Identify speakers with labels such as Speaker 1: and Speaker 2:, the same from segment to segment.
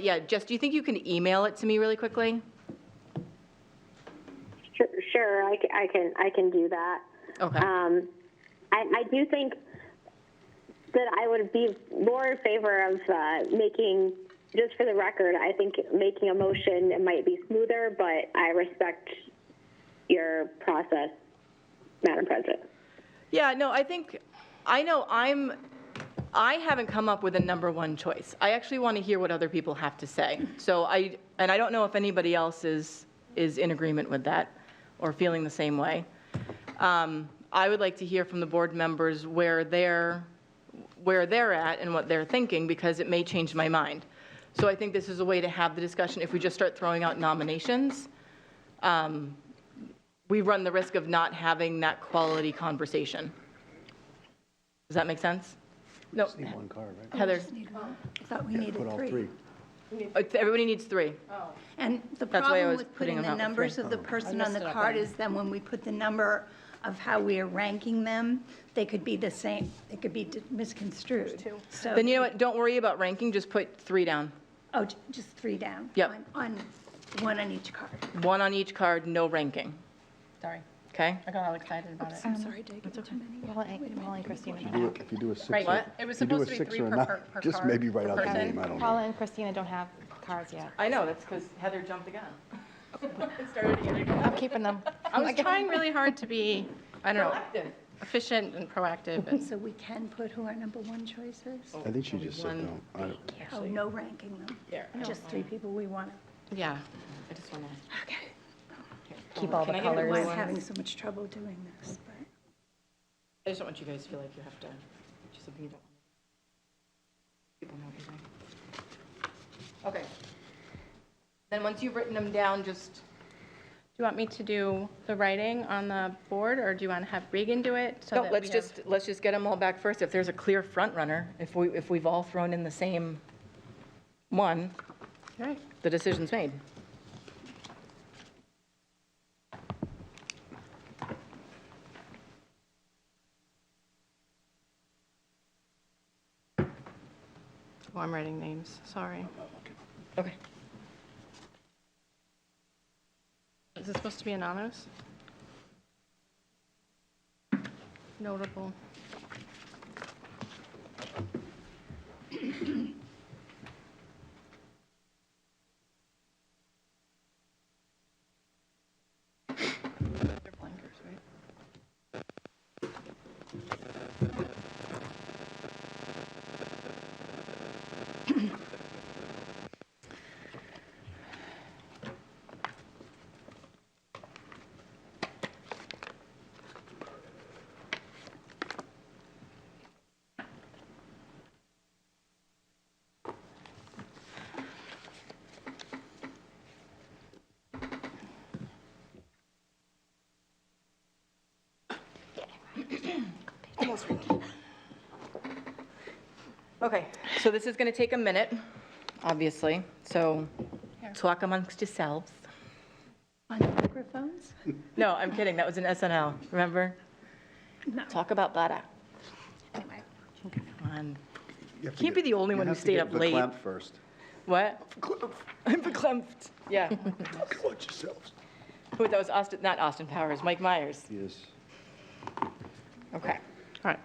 Speaker 1: Yeah, Jess, do you think you can email it to me really quickly?
Speaker 2: Sure, sure, I, ca- I can, I can do that.
Speaker 1: Okay.
Speaker 2: Um, I, I do think that I would be more in favor of uh, making, just for the record, I think making a motion might be smoother, but I respect your process, Madam President.
Speaker 1: Yeah, no, I think, I know I'm, I haven't come up with a number one choice. I actually want to hear what other people have to say. So I, and I don't know if anybody else is, is in agreement with that or feeling the same way. Um, I would like to hear from the board members where they're, where they're at and what they're thinking because it may change my mind. So I think this is a way to have the discussion. If we just start throwing out nominations, um, we run the risk of not having that quality conversation. Does that make sense? No,
Speaker 3: Need one card,
Speaker 4: Oh,
Speaker 3: right?
Speaker 1: Heather,
Speaker 4: I thought we needed
Speaker 3: Put all
Speaker 4: three.
Speaker 3: three.
Speaker 1: uh, everybody needs three.
Speaker 4: And the
Speaker 1: That's why I
Speaker 4: problem
Speaker 1: was
Speaker 4: with
Speaker 1: putting
Speaker 4: putting the
Speaker 1: them out with
Speaker 4: numbers
Speaker 1: three.
Speaker 4: of the person on the card is then when we put the number of how we are ranking them, they could be the same, they could be d- misconstrued. So,
Speaker 1: Then you know what, don't worry about ranking, just put three down.
Speaker 4: oh, j- just three down.
Speaker 1: Yep.
Speaker 4: On- On, one on each card.
Speaker 1: One on each card, no ranking,
Speaker 5: Sorry,
Speaker 1: okay?
Speaker 5: I got all excited about it.
Speaker 4: I'm sorry, Dick.
Speaker 6: Paul and Christina don't
Speaker 3: If you do
Speaker 6: have,
Speaker 3: it- If you do a six. or-
Speaker 5: Right,
Speaker 1: what?
Speaker 3: if
Speaker 5: It was
Speaker 3: you do a
Speaker 5: supposed to be
Speaker 3: six
Speaker 5: three
Speaker 3: or a
Speaker 5: per
Speaker 3: nine,
Speaker 5: per- per
Speaker 3: Just
Speaker 5: card,
Speaker 3: maybe write
Speaker 5: per
Speaker 3: out the
Speaker 5: person.
Speaker 3: name, I don't
Speaker 6: Paula
Speaker 3: know.
Speaker 6: and Christina don't have cards yet.
Speaker 1: I know, that's because Heather jumped the gun. Started again.
Speaker 6: I'm keeping them.
Speaker 5: I was trying really hard to be, I don't know,
Speaker 1: Active.
Speaker 5: efficient and proactive. and-
Speaker 4: So we can put who our number one choice is?
Speaker 1: Oh,
Speaker 3: I think she just said
Speaker 1: One.
Speaker 3: no. I-
Speaker 4: Oh, no ranking them.
Speaker 1: Yeah.
Speaker 4: Just three people we want.
Speaker 1: Yeah, I just want to.
Speaker 6: Keep all
Speaker 1: Can
Speaker 6: the
Speaker 1: I get everyone?
Speaker 4: I'm
Speaker 6: colors.
Speaker 4: having so much trouble doing this, but.
Speaker 1: I just don't want you guys to feel like you have to do something you don't. People know everything. Okay. Then once you've written them down, just,
Speaker 5: Do you want me to do the writing on the Uh, board, or do you want to have Regan do it? so
Speaker 1: no,
Speaker 5: that
Speaker 1: let's
Speaker 5: we have-
Speaker 1: just, let's just get them all back first. If there's a clear front runner, if we, if we've all thrown in the same one,
Speaker 5: All right.
Speaker 1: the decision's made.
Speaker 5: Oh, I'm writing names, sorry.
Speaker 1: Okay.
Speaker 5: Is this supposed to be anonymous? Notable. They're blankers, right?
Speaker 1: Okay, so this is going to take a minute, obviously, so talk amongst yourselves.
Speaker 4: On the microphones?
Speaker 1: No, I'm kidding, that was an SNL, remember?
Speaker 4: No.
Speaker 1: Talk about butter.
Speaker 4: Anyway.
Speaker 1: On
Speaker 3: You have to
Speaker 1: Can't be
Speaker 3: get-
Speaker 1: the only
Speaker 3: you
Speaker 1: one who
Speaker 3: have to
Speaker 1: stayed
Speaker 3: get
Speaker 1: up late.
Speaker 3: verklempt first.
Speaker 1: What? I'm verklempt. Yeah.
Speaker 3: Watch yourselves.
Speaker 1: Who, that was Austin, not Austin Powers, Mike Myers.
Speaker 3: Yes.
Speaker 1: Okay.
Speaker 5: All right.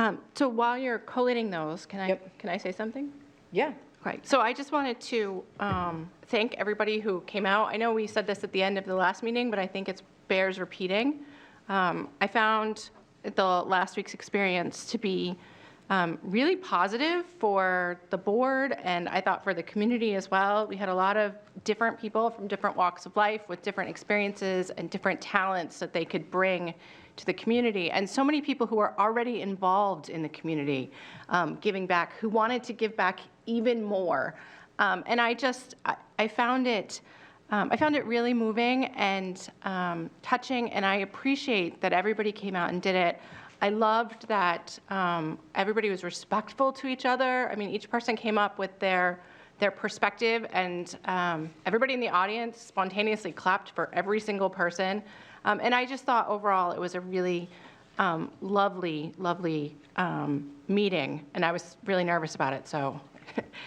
Speaker 5: Um, So while you're collating those, can I,
Speaker 1: Yep.
Speaker 5: can I say something?
Speaker 1: Yeah.
Speaker 5: Right, so I just wanted to um, thank everybody who came out. I know we said this at the end of the last meeting, but I think it's bears repeating. Um, I found the last week's experience to be um, really positive for the board, and I thought for the community as well. We had a lot of different people from different walks of life with different experiences and different talents that they could bring to the community and so many people who are already involved in the community um, giving back who wanted to give back even more um, and i just i, I found it um, i found it really moving and um, touching and i appreciate that everybody came out and did it I loved that um, everybody was respectful to each other. I mean, each person came up with their their perspective, and um, everybody in the audience spontaneously clapped for every single person. Um, and I just thought overall it was a really um, lovely, lovely um, meeting, and I was really nervous about it. So